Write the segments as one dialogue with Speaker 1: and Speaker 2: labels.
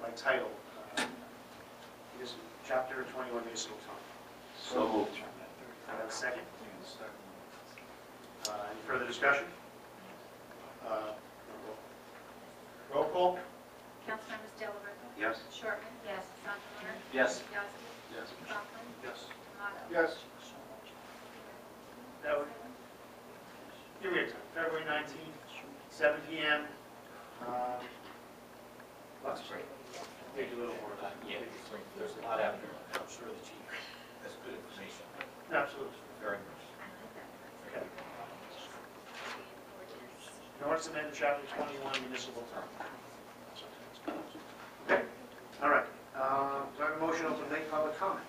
Speaker 1: by title. uh, This is chapter 21 municipal code.
Speaker 2: So moved.
Speaker 1: I have a second. Uh, Any further discussion? Uh, Roll call?
Speaker 3: Councilmembers Delarose.
Speaker 2: Yes.
Speaker 3: Shortman. Yes. Sondemire.
Speaker 2: Yes.
Speaker 3: Yasi.
Speaker 2: Yes.
Speaker 3: Conklin.
Speaker 1: Yes.
Speaker 3: Tomato.
Speaker 1: Yes. That would, give me a time, February 19th, 7 PM. Um, Let's break. Take a little more time.
Speaker 4: Uh, Yeah, there's a lot out there. I'm sure the chief has good information,
Speaker 1: Absolutely.
Speaker 4: very much.
Speaker 1: Okay. In order to amend chapter 21 municipal term. Okay, all right. Um, Do I have a motion open to make public comment?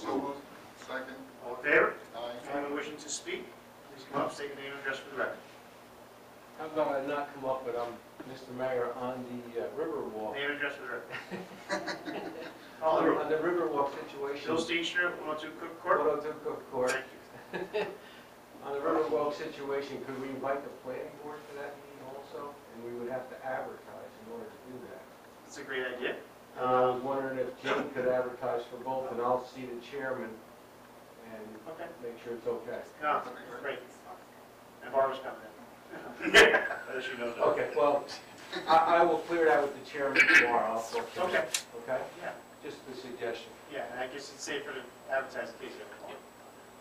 Speaker 2: So moved.
Speaker 5: Second,
Speaker 1: All in favor?
Speaker 5: aye.
Speaker 1: Anyone wishing to speak, please come up, state your name and address for the record.
Speaker 6: How come I've not come up with, um, Mr. Mayor, on the uh, Riverwalk?
Speaker 1: Name and address for the record. All in favor?
Speaker 6: On the Riverwalk situation.
Speaker 1: Bill Steenstra, 102 Cook Court.
Speaker 6: 102 Cook Court.
Speaker 1: Thank
Speaker 6: On the Riverwalk situation, could we invite the planning board to that meeting also? And we would have to advertise in order to do that.
Speaker 1: you. That's a great idea.
Speaker 6: And I was wondering if Jim could advertise for both, and I'll see the chairman and
Speaker 1: Okay.
Speaker 6: make sure it's okay.
Speaker 1: No, great. And Barbara's coming in. As you know. that.
Speaker 6: Okay, well, I, I will clear it out with the chairman tomorrow, I'll talk to him.
Speaker 1: Okay,
Speaker 6: Okay?
Speaker 1: yeah,
Speaker 6: Just a suggestion.
Speaker 1: yeah, and I guess it's safer to advertise in case you have a call.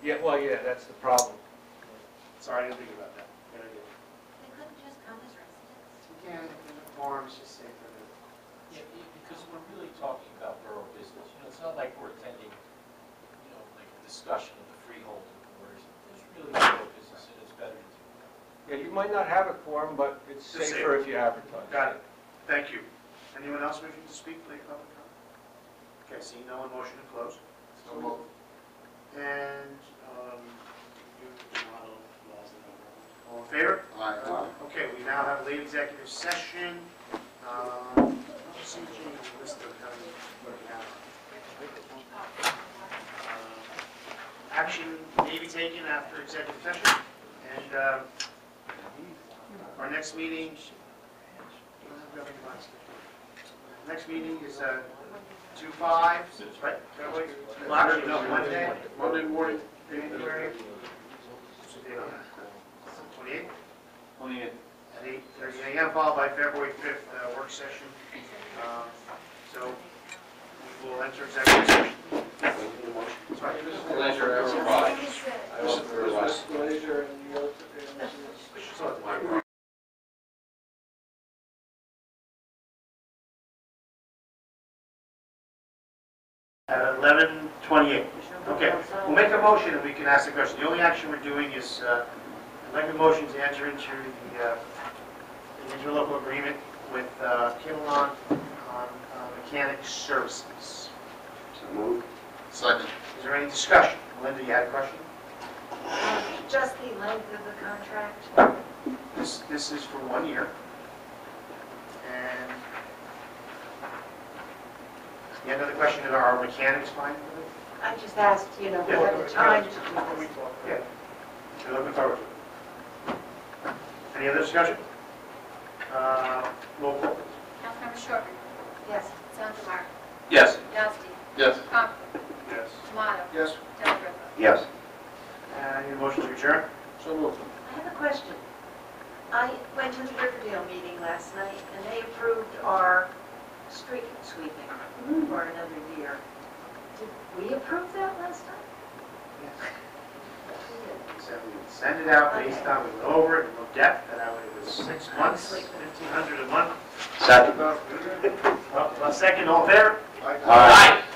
Speaker 6: Yeah, well, yeah, that's the problem.
Speaker 1: Sorry, I didn't think about that. Good idea.
Speaker 3: They couldn't just come as residents.
Speaker 7: Again, in the forums, just say for the
Speaker 4: Yeah, be- because we're really talking about borough business, you know, it's not like we're attending, you know, like a discussion of the freehold and orders. It's really borough business, and it's better to do that.
Speaker 6: Yeah, you might not have a quorum, but it's
Speaker 1: Just say
Speaker 6: safer if you advertise.
Speaker 1: Got it. Thank you. Anyone else wishing to speak, please come and come. Okay, seeing no one, motion to close.
Speaker 5: So moved.
Speaker 1: And, um, you can model laws and all that. All in favor?
Speaker 5: Aye.
Speaker 1: Uh, Okay, we now have late executive session. Um, CG list of kind of working out. Uh, Action may be taken after executive session, and uh, our next meeting, next meeting is uh, 2/5, right? February? Well, actually, no, Monday,
Speaker 5: Monday morning.
Speaker 1: February 28th
Speaker 2: Only a
Speaker 1: at 8:30 a.m., followed by February 5th uh, work session. Um, So we will enter executive session. Sorry.
Speaker 2: pleasure, everybody. I hope everybody-
Speaker 7: disclosure and the oath of the-
Speaker 1: So- At 11:28. Okay, we'll make a motion and we can ask the question. The only action we're doing is, uh, I'd like a motion to enter into the uh, the interlocal agreement with uh, Kinlaw on uh, mechanic services.
Speaker 2: So moved.
Speaker 5: Second.
Speaker 1: Is there any discussion? Linda, you had a question?
Speaker 8: Just the length of the contract?
Speaker 1: This, this is for one year. And the end of the question is, are our mechanics fine with it?
Speaker 8: I just asked, you know,
Speaker 1: Yeah.
Speaker 8: we have the time to do this.
Speaker 1: Yeah. We're looking forward to it. Any other discussion? Uh, Roll call.
Speaker 3: Councilmember Shortman.
Speaker 8: Yes.
Speaker 3: Sondemire.
Speaker 2: Yes.
Speaker 3: Yasi.
Speaker 5: Yes.
Speaker 3: Conklin.
Speaker 1: Yes.
Speaker 3: Tomato.
Speaker 5: Yes.
Speaker 3: Delarose.
Speaker 2: Yes.
Speaker 1: And need a motion to adjourn?
Speaker 5: So moved.
Speaker 8: I have a question. I went to the Riverdale meeting last night, and they approved our street sweeping
Speaker 3: Mm-hmm.
Speaker 8: for another year. Did we approve that last time?
Speaker 1: Said we would send it out based on, we went over it, we looked at, and I it was six months, 1,500 a month.
Speaker 2: Second.
Speaker 1: Well, well, second, all there?
Speaker 5: Aye.
Speaker 2: Aye.